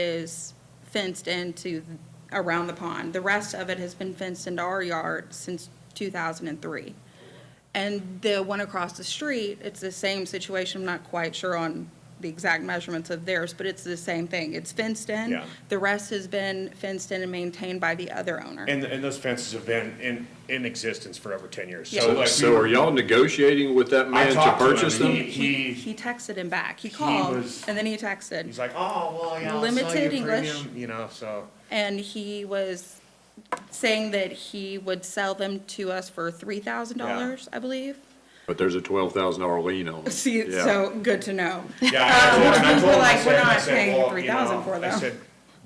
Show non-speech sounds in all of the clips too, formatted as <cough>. is fenced into, around the pond. The rest of it has been fenced into our yard since 2003. And the one across the street, it's the same situation, I'm not quite sure on the exact measurements of theirs, but it's the same thing. It's fenced in. Yeah. The rest has been fenced in and maintained by the other owner. And, and those fences have been in, in existence for over ten years. Yeah. So like, So are y'all negotiating with that I man to talked to him, purchase and them? He, he, He texted him back. He called, was- and then he texted. he's like, oh, well, yeah, I'll sell you Limited English. premium," You know, so, And he was saying that he would sell them to us for three thousand dollars, I believe. But there's a twelve thousand dollar lien on it. See, Yeah. so, good to know. yeah. and I told We're him- and I told him, I like, said- we're I not said, paying "Well, 3,000 you know," for Mm-hmm. I them. said,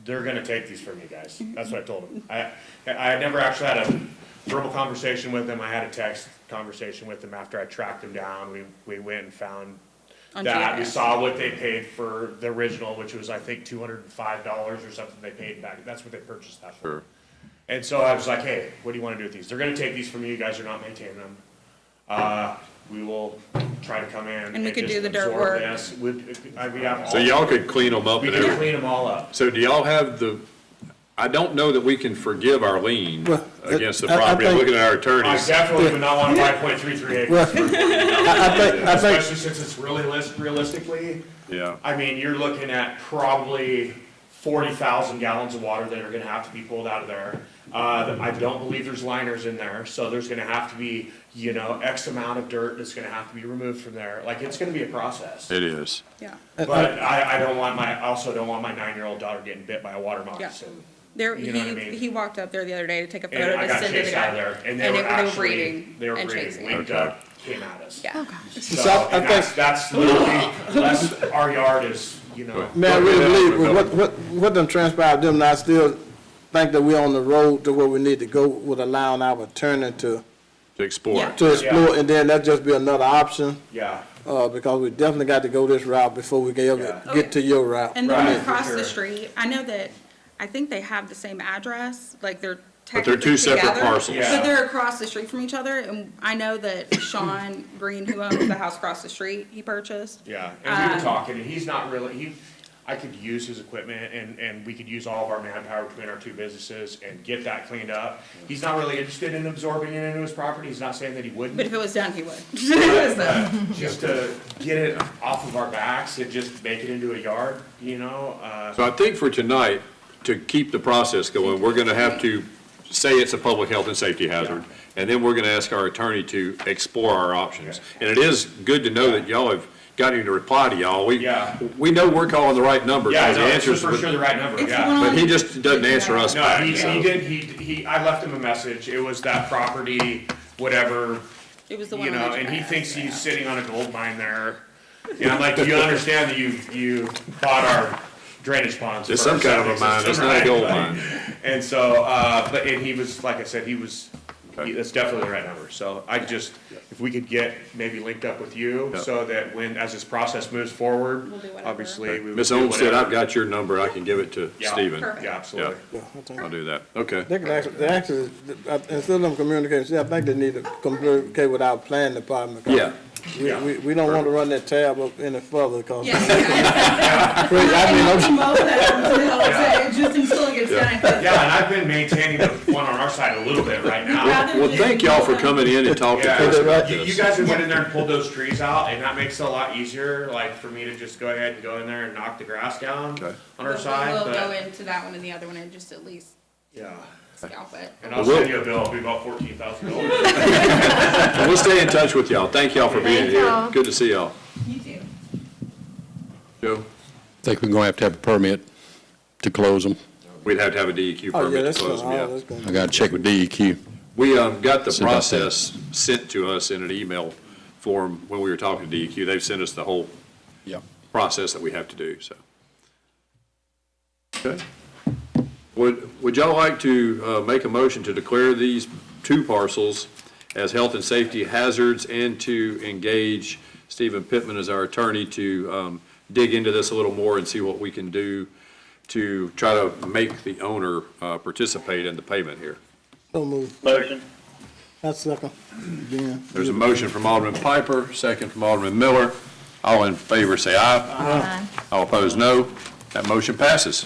they're gonna take these from you guys. That's what I told him. I, I had never actually had a verbal conversation with him. I had a text conversation with him after I tracked him down. We, we went and found On that. We GIS. saw what they paid for the original, which was, I think, two hundred and five dollars or something they paid back. That's what they purchased that for. Sure. And so I was like, hey, what do you want to do with these? They're going to take these from you. You guys are not maintaining them. Uh, we will try to come in. And we could just do the dirt absorb work. this. Would, I, we have all, So y'all could clean them up we and could everything. clean them all up. So do y'all have the, I don't know that we can forgive our lien Well, against the I- I property. I'm think- looking at our I attorneys. definitely would not want to buy point three three Well, acres. I I think, I think, Especially since it's really list, realistically, Yeah. I mean, you're looking at probably forty thousand gallons of water that are gonna have to be pulled out of there. Uh, I don't believe there's liners in there, so there's gonna have to be, you know, X amount of dirt that's gonna have to be removed from there. Like, it's gonna be a process. It is. Yeah. But I, I don't want my, I also don't want my nine-year-old daughter getting bit by a water moccasin. There, You know what I he, mean? he walked up there the other day to take a And photo I to got send to the chased out guy. of there, and they were actually, breeding they were and breeding, chasing. linked Okay. up, came at us. Yeah. So, So I- I and that's, think- that's literally, <laughs> that's, our yard is, you know. man, I really believe, with what, what, what done transpired, them, and I still think that we're on the road to where we need to go with allowing our attorney to, To explore. Yeah. to explore, and then that just be another option, Yeah. uh, because we definitely got to go this route before we can ever Yeah. get to your route. And Right, then for across the sure. street, I know that, I think they have the same address, like they're But they're technically two separate together, parcels. Yeah. But they're across the street from each other, and I know that <coughs> Sean Green, who owns the house across the street, he purchased. Yeah, and we were talking, and he's not really, he, I could use his equipment and, and we could use all of our manpower between our two businesses and get that cleaned up. He's not really interested in absorbing it into his property, he's not saying that he But wouldn't. if it was done, he would. <laughs> So- <laughs> Just to get it off of our backs and just make it into a yard, you know, uh, So I think for tonight, to keep the process going, we're gonna have to say it's a public health and safety hazard. And then we're gonna ask our attorney to explore our options. And it is good to know that y'all have gotten him to reply to y'all. We, Yeah. we know we're calling the right number. yeah, The no, it's answers, for but- sure the right number, It's yeah. one But he just doesn't answer us No, back, he, he so. did, he, he, I left him a message, it was that property, whatever, It was the one you on know, the and he GIS, thinks yeah. he's sitting on a gold mine there. And I'm like, do you understand that you, you bought our drainage ponds? It's for our some kind of a septic mine, system, it's not a right? gold Like, mine. And so, uh, but, and he was, like I said, he was, Okay. he- that's definitely the right number, so I just, if we could get maybe linked up with you, Yeah. so that when, as this process moves forward, We'll do whatever. obviously, we would. Ms. do Olmstead, whatever. I've got your number, I can give it to Yeah. Stephen. Perfect. Yeah, absolutely. Yeah, I think- I'll do that, okay. They can actually, they actually, I- instead of them communicating, see, I think they need to communicate with our planning department. 'cause Yeah. We, we, we don't want to run that tab up any further, because, Yeah, yeah. <laughs> I mean, I'm- Promote that until it's- Just until it gets done. 'cause Yeah, and I've been maintaining the one on our side a little bit right now. Rather Well, than- thank y'all for coming in and talking to us Yeah, about you, you this. guys have went in there and pulled those trees out, and that makes it a lot easier, like, for me to just go ahead and go in there and knock the grass down Okay. on our We'll- side, We'll go but, into that one and the other one and just at least yeah. scalp it. And I'll send you a bill, it'll be about fourteen thousand dollars. And we'll stay in touch with y'all, thank y'all for being Thank here, y'all. good to see y'all. You do. Joe? Think we're gonna have to have a permit to close them. We'd have to have a DEQ oh, yeah, permit that's, to gonna- close them, oh, yeah. that's gonna. I gotta check with E DEQ. We um, got the See about that. process sent to us in an email form when we were talking to DEQ. They've sent us the whole Yeah. process that we have to do, so. Okay. Would, would y'all like to uh, make a motion to declare these two parcels as health and safety hazards and to engage Stephen Pittman as our attorney to um, dig into this a little more and see what we can do to try to make the owner uh, participate in the payment here? So move. Motion. That's second. Again. There's a motion from Alderman Piper, second from Alderman Miller. All in favor, say aye. All opposed, no. That motion passes.